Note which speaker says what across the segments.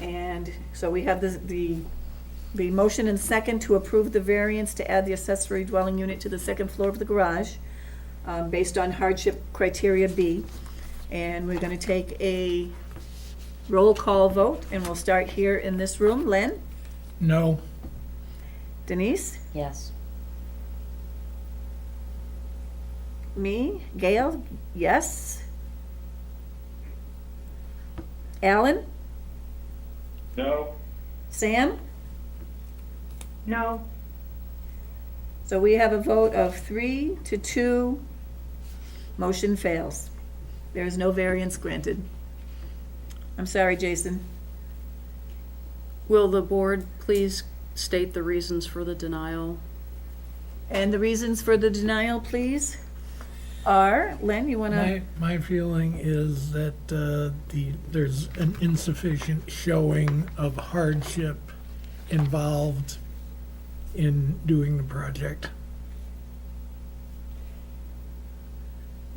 Speaker 1: And so we have the, the, the motion and second to approve the variance to add the accessory dwelling unit to the second floor of the garage, um, based on hardship criteria B. And we're gonna take a roll call vote, and we'll start here in this room. Len?
Speaker 2: No,
Speaker 1: Denise?
Speaker 3: Yes.
Speaker 1: Me? Gail? Yes? Alan?
Speaker 4: No,
Speaker 1: Sam?
Speaker 5: No,
Speaker 1: So we have a vote of three to two. Motion fails. There is no variance granted. I'm sorry, Jason.
Speaker 6: Will the board please state the reasons for the denial?
Speaker 1: And the reasons for the denial, please, are, Len, you want to?
Speaker 2: my, my feeling is that uh, the, there's an insufficient showing of hardship involved in doing the project.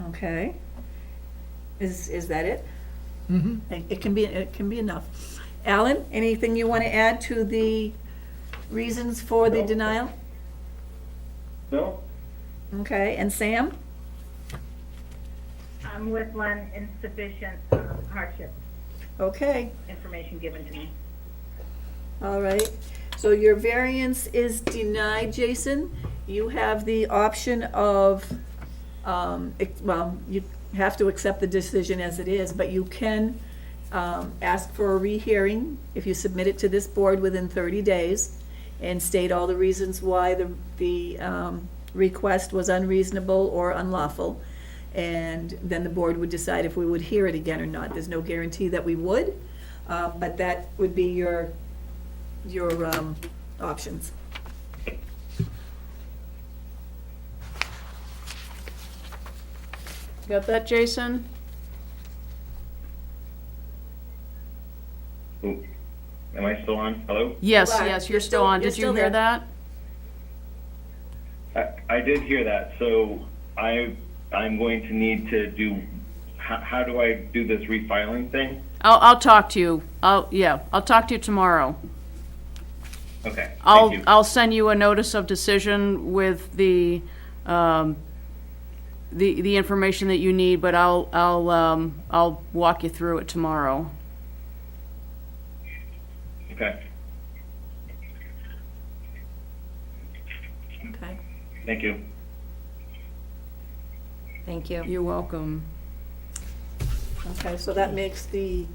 Speaker 1: Okay. Is, is that it?
Speaker 2: Mhm.
Speaker 1: It it can be, it can be enough. Alan, anything you want to add to the reasons for the
Speaker 4: No.
Speaker 1: denial?
Speaker 4: no,
Speaker 1: Okay, and Sam?
Speaker 5: I'm um, with Len, insufficient um, hardship
Speaker 1: Okay.
Speaker 5: information given to me.
Speaker 1: All right, so your variance is denied, Jason. You have the option of, um, ex- well, you have to accept the decision as it is, but you can um, ask for a rehearing if you submit it to this board within 30 days and state all the reasons why the, the um, request was unreasonable or unlawful. And then the board would decide if we would hear it again or not. There's no guarantee that we would, uh, but that would be your your um, options.
Speaker 6: Got that, Jason?
Speaker 4: Ooh. Am I still on? Hello?
Speaker 6: Yes,
Speaker 1: You are.
Speaker 6: yes,
Speaker 1: You're
Speaker 6: you're still
Speaker 1: still-
Speaker 6: on.
Speaker 1: you're
Speaker 6: Did
Speaker 1: still
Speaker 6: you hear
Speaker 1: there.
Speaker 6: that?
Speaker 4: I, I did hear that, so I, I'm going to need to do, how, how do I do this refiling thing?
Speaker 6: I'll, I'll talk to you. I'll, yeah, I'll talk to you tomorrow.
Speaker 4: Okay, thank
Speaker 6: I'll,
Speaker 4: you.
Speaker 6: I'll send you a notice of decision with the, um, the, the information that you need, but I'll, I'll, um, I'll walk you through it tomorrow.
Speaker 4: Okay,
Speaker 1: Okay.
Speaker 4: thank you.
Speaker 3: Thank you.
Speaker 6: You're welcome.
Speaker 1: Okay, so that makes the,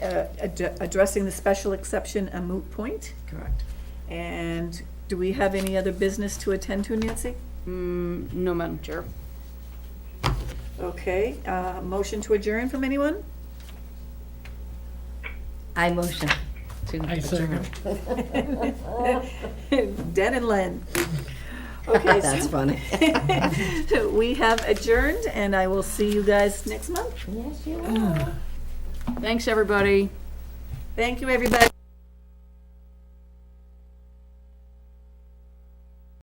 Speaker 1: uh, ad- addressing the special exception a moot point.
Speaker 3: Correct.
Speaker 1: And do we have any other business to attend to, Nancy?
Speaker 6: Mm, No, Madam Chair.
Speaker 1: Okay, uh, motion to adjourn from anyone?
Speaker 3: I motion to
Speaker 2: I
Speaker 3: adjourn.
Speaker 2: second.
Speaker 1: Den and Len. Okay,
Speaker 3: That's
Speaker 1: so
Speaker 3: funny.
Speaker 1: we have adjourned, and I will see you guys next month.
Speaker 3: Yes, you are.
Speaker 6: Thanks, everybody.
Speaker 1: Thank you, everybody.